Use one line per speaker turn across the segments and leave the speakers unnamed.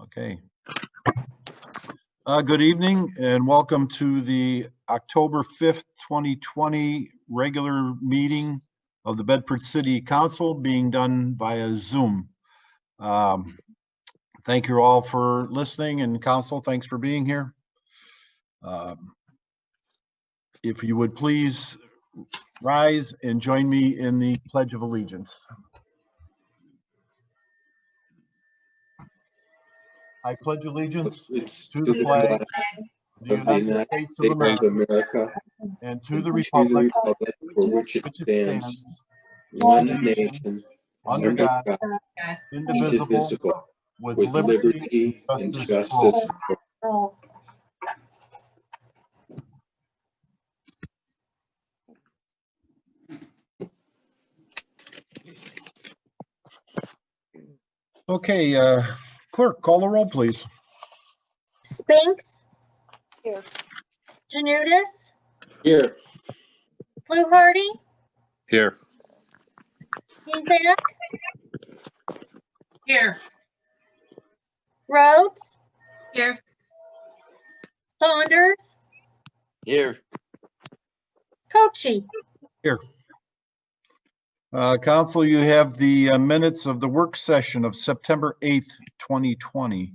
Okay. Uh, good evening and welcome to the October 5th, 2020 regular meeting of the Bedford City Council being done via Zoom. Um, Thank you all for listening and council, thanks for being here. Um, If you would please rise and join me in the Pledge of Allegiance. I pledge allegiance
It's
to the flag of the
of the
United
United
States of
States of
America
America,
and to the
to
republic
republic for which it
which it
stands,
stands,
one
one
nation,
under God, indivisible,
indivisible,
with
with
liberty.
liberty and
justice
justice.
for all.
for
Oh,
Okay, uh, clerk, call the roll, please.
Spinks. Here. Janudis,
Here,
Fluharty,
Here.
Mezak,
Here.
Rhodes,
Here.
Saunders,
Here,
Cochi.
Uh, council, you have the uh, minutes of the work session of September 8th, 2020.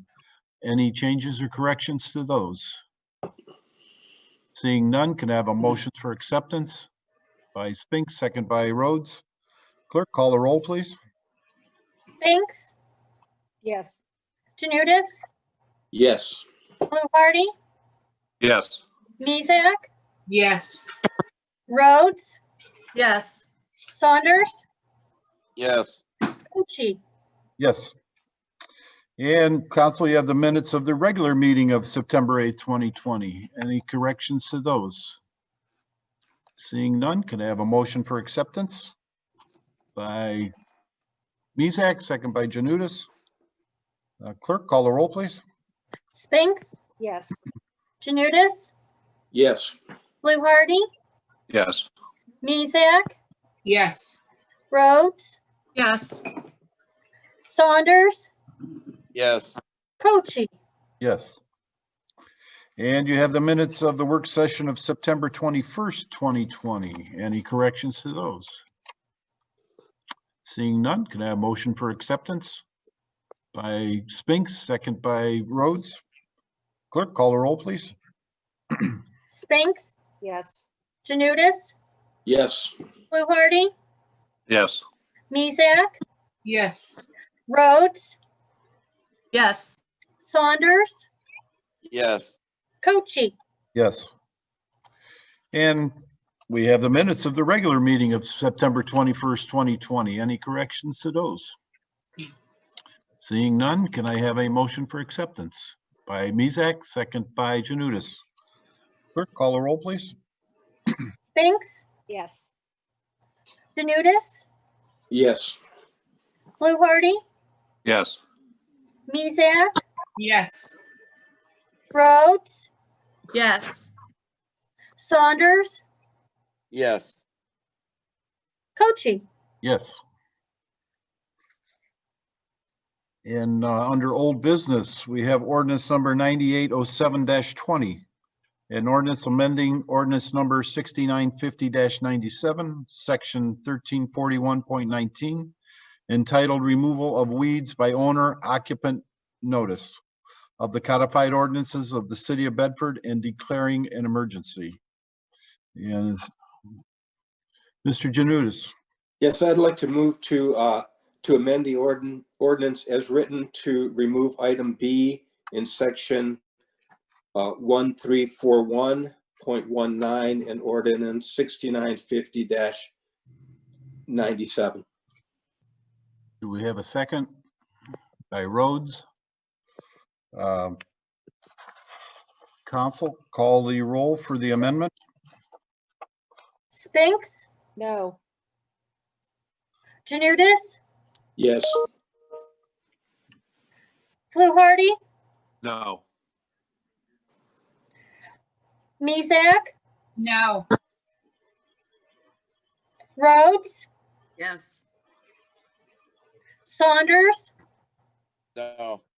Any changes or corrections to those? Seeing none, can I have a motion for acceptance by Spinks, second by Rhodes. Clerk, call the roll, please.
Spinks,
Yes,
Janudis,
yes,
Fluharty,
Yes.
Mezak,
Yes.
Rhodes,
Yes.
Saunders,
yes,
Cochi.
Yes. And council, you have the minutes of the regular meeting of September 8th, 2020. Any corrections to those? Seeing none, can I have a motion for acceptance? By Mezak, second by Janutus. Uh, Clerk, call the roll, please.
Spinks,
yes,
Janudis,
yes,
Fluharty,
Yes.
Mezak,
Yes.
Rhodes,
Yes.
Saunders,
yes,
Cochi.
Yes. And you have the minutes of the work session of September 21st, 2020. Any corrections to those? Seeing none, can I have a motion for acceptance? By Spinks, second by Rhodes. Clerk, call the roll, please.
Spinks,
yes,
Janudis,
yes,
Fluharty,
Yes.
Mezak,
Yes.
Rhodes,
Yes.
Saunders,
yes,
Cochi.
Yes. And we have the minutes of the regular meeting of September 21st, 2020. Any corrections to those? Seeing none, can I have a motion for acceptance by Mezak, second by Janutus? Clerk, call the roll, please.
Spinks,
yes,
Janudis,
yes,
Fluharty,
Yes.
Mezak,
Yes.
Rhodes,
Yes.
Saunders,
yes,
Cochi.
Yes. And uh, under old business, we have ordinance number 9807-20. An ordinance amending ordinance number 6950-97, section 1341.19, entitled Removal of Weeds by Owner Occupant Notice of the codified ordinances of the city of Bedford and declaring an emergency. And Mr. Janutus.
yes, I'd like to move to, uh, to amend the ordin, ordinance as written to remove item B in section, uh, one, three, four, one, point one nine and ordinance sixty-nine fifty ninety-seven.
Do we have a second? By Rhodes. Um, Council, call the roll for the amendment?
Spinks,
no,
Janudis,
Yes,
Fluharty,
No.
Mezak,
No.
Rhodes,
Yes.
Saunders,
no,